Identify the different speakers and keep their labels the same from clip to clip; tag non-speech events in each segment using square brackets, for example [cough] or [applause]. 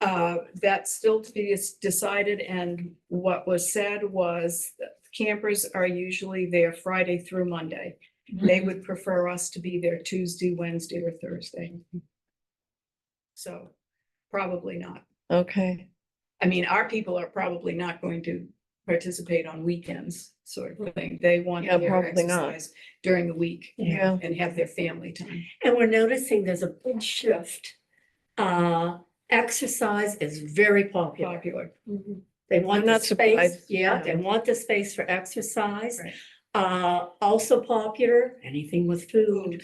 Speaker 1: uh, that's still to be s- decided and what was said was that campers are usually there Friday through Monday.
Speaker 2: Mm-hmm.
Speaker 1: They would prefer us to be there Tuesday, Wednesday or Thursday.
Speaker 2: Mm-hmm.
Speaker 1: So probably not.
Speaker 2: Okay,
Speaker 1: I mean, our people are probably not going to participate on weekends sort of thing. They want
Speaker 2: Yeah,
Speaker 1: their
Speaker 2: probably not.
Speaker 1: exercise during the week
Speaker 2: yeah,
Speaker 1: and have their family time.
Speaker 3: And we're noticing there's a big shift. Uh, exercise is very popular.
Speaker 1: Popular.
Speaker 2: Mm-hmm.
Speaker 3: They want
Speaker 2: I'm
Speaker 3: the
Speaker 2: not
Speaker 3: space,
Speaker 2: surprised,
Speaker 3: yeah,
Speaker 2: yeah.
Speaker 3: they want the space for exercise.
Speaker 1: Right.
Speaker 3: Uh, also popular, anything with
Speaker 1: [laughs]
Speaker 3: food,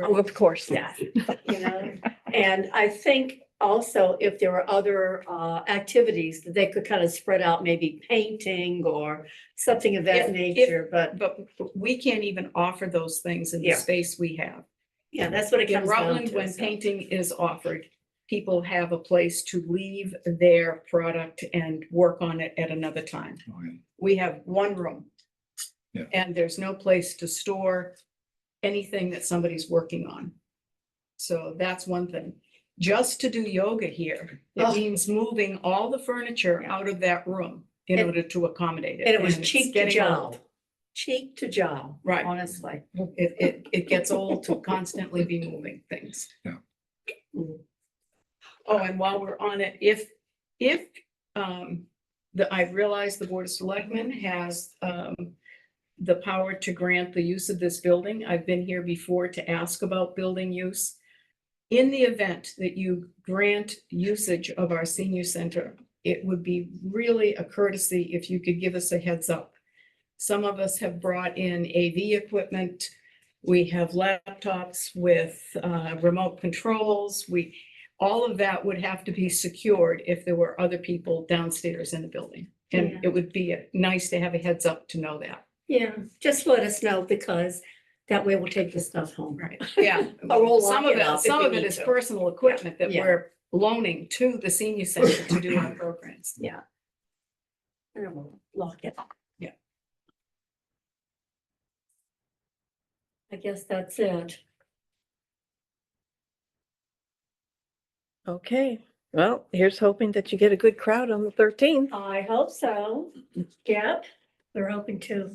Speaker 2: Oh, of course.
Speaker 3: yeah, you know? And I think also if there were other, uh, activities that they could kind of spread out, maybe painting or something
Speaker 1: If-
Speaker 3: of that
Speaker 1: if-
Speaker 3: nature, but
Speaker 1: But we can't even offer those things in the
Speaker 3: Yeah.
Speaker 1: space we have.
Speaker 3: yeah, that's what it
Speaker 1: In
Speaker 3: comes down
Speaker 1: Rutland,
Speaker 3: to.
Speaker 1: when
Speaker 3: so.
Speaker 1: painting is offered, people have a place to leave their product and work on it at another time. We have one room.
Speaker 4: Yeah.
Speaker 1: And there's no place to store anything that somebody's working on. So that's one thing. Just to do yoga here, it
Speaker 3: Oh.
Speaker 1: means moving all the furniture out of that room in
Speaker 3: And-
Speaker 1: order to accommodate it.
Speaker 3: And it was
Speaker 1: it's
Speaker 3: cheek to
Speaker 1: getting
Speaker 3: jowl,
Speaker 1: old.
Speaker 3: cheek to jowl,
Speaker 1: Right.
Speaker 3: honestly.
Speaker 1: It, it, it gets old to constantly be moving things. Oh, and while we're on it, if, if, um, the, I realize the Board of Selectmen has, um, the power to grant the use of this building. I've been here before to ask about building use. In the event that you grant usage of our senior center, it would be really a courtesy if you could give us a heads up. Some of us have brought in AV equipment. We have laptops with, uh, remote controls. We, all of that would have to be secured if there were other people downstairs in the building.
Speaker 3: Yeah.
Speaker 1: And it would be nice to have a heads up to know that.
Speaker 3: Yeah, just let us know because that way we'll take the stuff home.
Speaker 1: Right,
Speaker 3: [laughs]
Speaker 1: yeah.
Speaker 3: Or we'll
Speaker 1: Some
Speaker 3: lock
Speaker 1: of
Speaker 3: it up
Speaker 1: it,
Speaker 3: if
Speaker 1: some
Speaker 3: we
Speaker 1: of it
Speaker 3: need
Speaker 1: is
Speaker 3: to.
Speaker 1: personal equipment that
Speaker 3: Yeah.
Speaker 1: we're loaning to the senior center to do our programs.
Speaker 3: Yeah. And then we'll lock it. up.
Speaker 1: Yeah.
Speaker 3: I guess that's it.
Speaker 2: Okay, well, here's hoping that you get a good crowd on the thirteenth.
Speaker 3: I hope so. Yep, we're open to.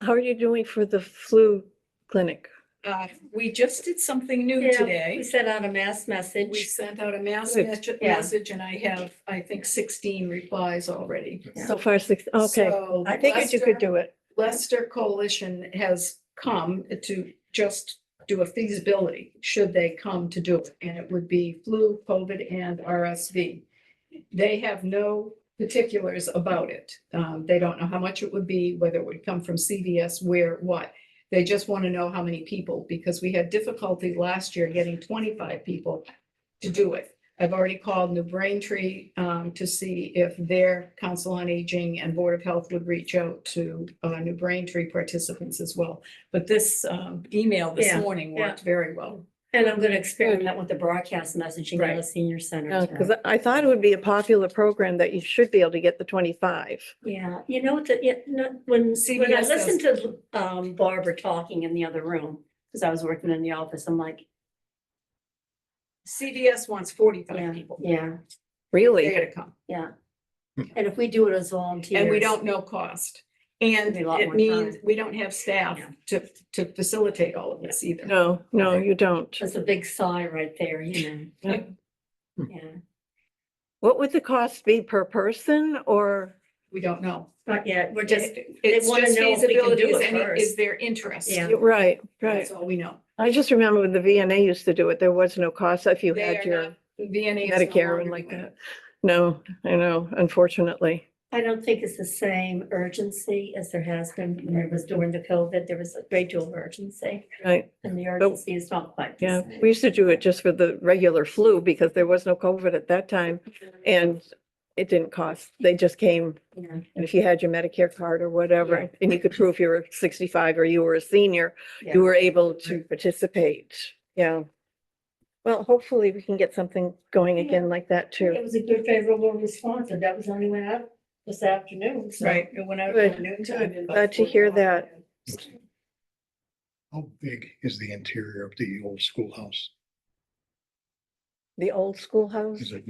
Speaker 2: How are you doing for the flu clinic?
Speaker 1: Uh, we just did something new
Speaker 3: Yeah, We
Speaker 1: today.
Speaker 3: sent out a mass
Speaker 1: We
Speaker 3: message.
Speaker 1: sent out a mass
Speaker 2: Good.
Speaker 1: mes-
Speaker 3: Yeah.
Speaker 1: message and I have, I think, sixteen replies already.
Speaker 3: Yeah.
Speaker 2: So far, six, okay.
Speaker 1: So
Speaker 2: I figured you could
Speaker 1: Lester-
Speaker 2: do it.
Speaker 1: Leicester Coalition has come to just do a feasibility, should they come to do it, and it would be flu, COVID, and RSV. They have no particulars about it. Um, they don't know how much it would be, whether it would come from CVS, where, what. They just want to know how many people, because we had difficulty last year getting twenty-five people to do it. I've already called New Braintree um, to see if their Council on Aging and Board of Health would reach out to uh, New Braintree participants as well. But this um, email this
Speaker 3: Yeah,
Speaker 1: morning worked very well.
Speaker 3: And I'm gonna experiment with the broadcast messaging at
Speaker 1: Right. Oh,
Speaker 3: the senior center. too.
Speaker 2: Because I thought it would be a popular program that you should be able to get the twenty-five.
Speaker 3: Yeah, you know, that, yeah, no, when, when I
Speaker 1: CBS does-
Speaker 3: listened to um Barbara talking in the other room, because I was working in the office, I'm like,
Speaker 1: CVS wants forty-five
Speaker 3: yeah,
Speaker 1: people.
Speaker 3: yeah,
Speaker 1: They're
Speaker 2: Really?
Speaker 1: gonna come,
Speaker 3: yeah. And if we do it as volunteers.
Speaker 1: and we don't know cost. And
Speaker 3: Be a lot
Speaker 1: it
Speaker 3: more
Speaker 1: means
Speaker 3: time.
Speaker 1: we don't have staff
Speaker 3: Yeah.
Speaker 1: to, to facilitate all of this either.
Speaker 2: No, no, you don't.
Speaker 3: That's a big sigh right there, you
Speaker 2: [laughs]
Speaker 3: know? Yeah,
Speaker 2: What would the cost be per person or?
Speaker 1: We don't know.
Speaker 3: not yet, we're just,
Speaker 1: It-
Speaker 3: they
Speaker 1: It's
Speaker 3: wanna
Speaker 1: just
Speaker 3: know if we can do
Speaker 1: feasibility, is
Speaker 3: it
Speaker 1: any, is
Speaker 3: first.
Speaker 1: there interest?
Speaker 3: Yeah.
Speaker 2: Right, right.
Speaker 1: That's all we know.
Speaker 2: I just remember when the VNA used to do it, there was no cost if you
Speaker 1: They
Speaker 2: had
Speaker 1: are
Speaker 2: your
Speaker 1: not- VNA is no
Speaker 2: Medicare
Speaker 1: longer
Speaker 2: and like
Speaker 1: doing it.
Speaker 2: that. No, I know, unfortunately.
Speaker 3: I don't think it's the same urgency as there has been, when it was during the COVID, there was a great deal of urgency.
Speaker 2: Right,
Speaker 3: And the urgency is not quite. the
Speaker 2: yeah.
Speaker 3: same.
Speaker 2: We used to do it just for the regular flu because there was no COVID at that time and it didn't cost. They just came
Speaker 3: Yeah.
Speaker 2: and if you had your Medicare card or
Speaker 3: Yeah.
Speaker 2: whatever, and you could prove you were sixty-five or you were a senior,
Speaker 3: Yeah.
Speaker 2: you were able to participate. Yeah. Well, hopefully we can get something going
Speaker 3: Yeah.
Speaker 2: again like that
Speaker 3: It
Speaker 2: too.
Speaker 3: was a good favorable response, and that was the only way out this afternoon, so.
Speaker 1: Right, it went out
Speaker 2: Good,
Speaker 1: at noon time. and about
Speaker 2: Glad to hear
Speaker 1: 4:00.
Speaker 2: that.
Speaker 4: How big is the interior of the old schoolhouse?
Speaker 2: The old schoolhouse.
Speaker 4: Is it